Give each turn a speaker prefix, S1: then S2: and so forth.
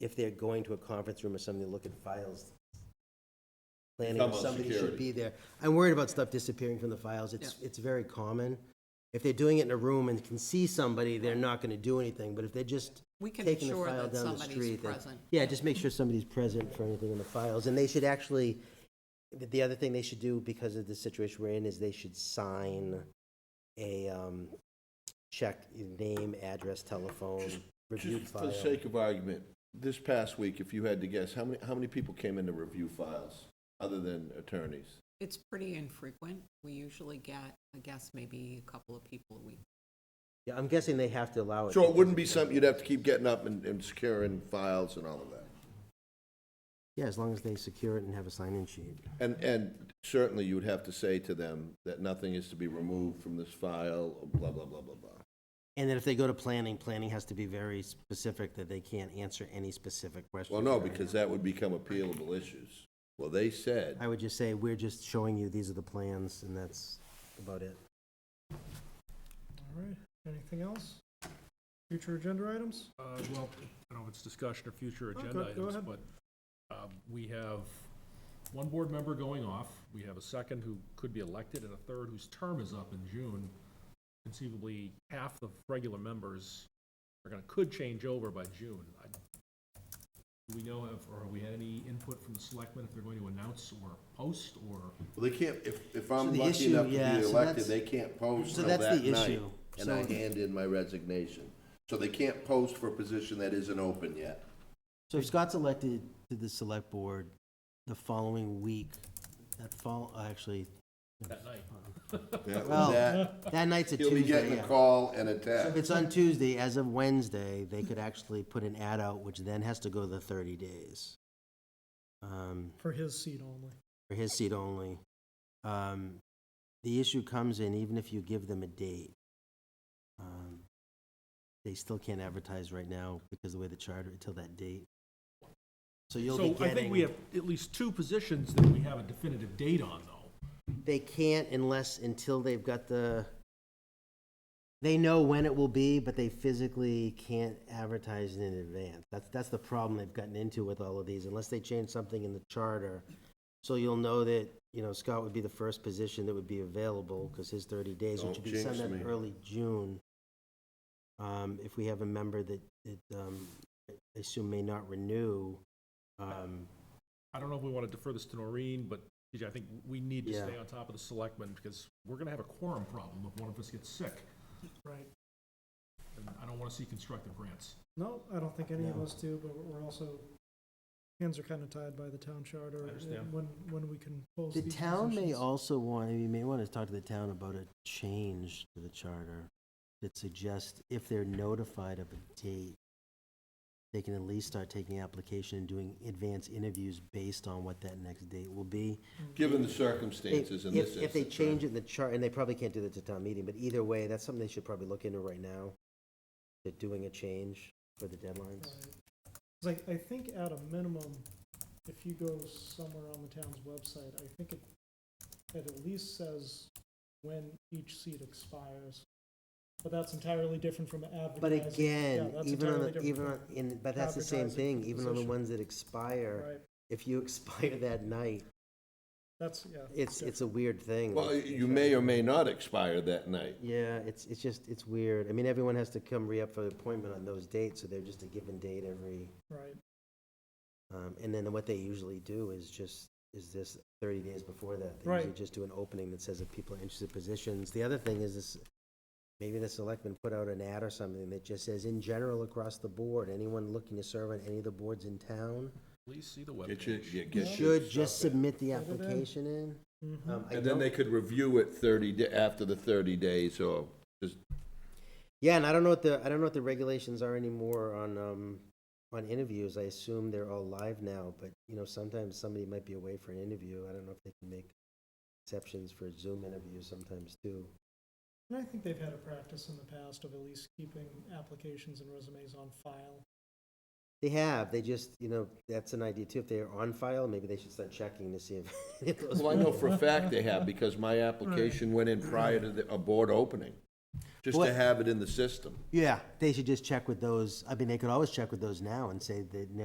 S1: if they're going to a conference room or something, to look at files. Planning,
S2: Talking
S1: or
S2: about
S1: somebody should
S2: security.
S1: be there. I'm worried about stuff disappearing from the files. It's, it's very common. If they're doing it in a room and can see somebody, they're not gonna do anything, but if they're just
S3: We can
S1: taking the
S3: ensure
S1: file
S3: that
S1: down the
S3: somebody's
S1: street. then-
S3: present.
S1: Yeah, just make sure somebody's present for anything in the files, and they should actually, the- the other thing they should do because of the situation we're in is they should sign a, um, check, name, address, telephone, review
S2: Just for
S1: file.
S2: the sake of argument, this past week, if you had to guess, how many, how many people came in to review files, other than attorneys?
S3: It's pretty infrequent. We usually get, I guess, maybe a couple of people a week.
S1: Yeah, I'm guessing they have to allow it.
S2: So it wouldn't be something you'd have to keep getting up and, and securing files and all of that?
S1: Yeah, as long as they secure it and have a sign-in sheet.
S2: And, and certainly you would have to say to them that nothing is to be removed from this file, blah, blah, blah, blah, blah.
S1: And then if they go to planning, planning has to be very specific that they can't answer any specific questions.
S2: Well, no,
S1: or anything.
S2: because that would become appealable issues. Well, they said,
S1: I would just say, we're just showing you, these are the plans, and that's about it.
S4: All right, anything else? Future agenda items?
S5: Uh, Well, I don't know if it's discussion or future
S4: Oh,
S5: agenda
S4: go- go
S5: items,
S4: ahead.
S5: but um, we have one board member going off. We have a second who could be elected and a third whose term is up in June. Conceivably, half the regular members are going to, could change over by June. I- Do we know if, or have we had any input from the selectmen if they're going to announce or post or?
S2: well, they can't, if, if
S1: So
S2: I'm
S1: the
S2: lucky
S1: issue-
S2: enough to be
S1: yeah, so
S2: elected,
S1: that's-
S2: they can't post
S1: so
S2: till
S1: that's
S2: that
S1: the
S2: night.
S1: issue.
S2: And I
S1: So-
S2: hand in my resignation. So they can't post for a position that isn't open yet.
S1: So if Scott's elected to the select board the following week, that fall, uh, actually.
S5: That night.
S1: Well,
S2: That-
S1: That night's a
S2: He'll be
S1: Tuesday,
S2: getting a
S1: yeah.
S2: call and a
S1: So if
S2: text.
S1: it's on Tuesday, as of Wednesday, they could actually put an ad out, which then has to go the thirty days. Um,
S4: For his seat only.
S1: for his seat only. Um, the issue comes in, even if you give them a date, um, they still can't advertise right now because the way the charter, until that date. So you'll be
S5: So I think we
S1: getting,
S5: have at least two positions that we have a definitive date on, though.
S1: they can't unless, until they've got the, they know when it will be, but they physically can't advertise it in advance. That's, that's the problem they've gotten into with all of these, unless they change something in the charter. So you'll know that, you know, Scott would be the first position that would be available, because his thirty days, which would
S2: Don't
S1: be
S2: jinx
S1: sometime
S2: me.
S1: early June. Um, if we have a member that, that, um, I assume may not renew, um,
S5: I don't know if we want to defer this to Noreen, but TJ, I think we need to
S1: Yeah.
S5: stay on top of the selectmen because we're going to have a quorum problem if one of us gets sick.
S4: Right.
S5: And I don't want to see constructive grants.
S4: No, I don't think any of
S1: No.
S4: us do, but we're also, hands are kind of tied by the town charter. and
S5: understand.
S4: When, when we can post
S1: The
S4: these
S1: town may
S4: positions.
S1: also want, you may want to talk to the town about a change to the charter that suggests if they're notified of a date, they can at least start taking application and doing advance interviews based on what that next date will be.
S2: Given the circumstances in this
S1: If,
S2: instance.
S1: if they change it
S2: right?
S1: in the chart, and they probably can't do that to town meeting, but either way, that's something they should probably look into right now. They're doing a change for the deadlines.
S4: Right. 'Cause I, I think at a minimum, if you go somewhere on the town's website, I think it, it at least says when each seat expires. But that's entirely different from advertising.
S1: But
S4: Yeah,
S1: again,
S4: that's
S1: even on,
S4: entirely
S1: the
S4: different
S1: even
S4: from-
S1: on, in- but that's the same
S4: advertising
S1: thing, even on the
S4: position.
S1: ones that expire.
S4: Right,
S1: if you expire that night,
S4: that's, yeah.
S1: it's, it's a weird thing.
S2: Well, you may or may not expire that night.
S1: Yeah, it's, it's just, it's weird. I mean, everyone has to come re-up for the appointment on those dates, so they're just a given date every,
S4: Right.
S1: um, and then what they usually do is just, is this thirty days before that. They
S4: Right.
S1: usually just do an opening that says if people are interested in positions. The other thing is this, maybe the selectmen put out an ad or something that just says, in general, across the board, anyone looking to serve on any of the boards in town
S5: Please see the
S2: Get your-
S5: webpage.
S2: you get your
S1: should just
S2: stuff in.
S1: submit the
S4: Put it in.
S1: application in.
S4: Mhm.
S1: Um, I
S2: And then
S1: don't-
S2: they could review it thirty, da- after the thirty days, or just,
S1: Yeah, and I don't know what the, I don't know what the regulations are anymore on, um, on interviews. I assume they're all live now, but, you know, sometimes somebody might be away for an interview. I don't know if they can make exceptions for Zoom interviews sometimes too.
S4: And I think they've had a practice in the past of at least keeping applications and resumes on file.
S1: They have, they just, you know, that's an idea too. If they're on file, maybe they should start checking to see if.
S2: well, I know for a fact they have, because my application went in prior to the, a board opening, just to
S1: What-
S2: have it in the system.
S1: Yeah, they should just check with those, I mean, they could always check with those now and say that, no,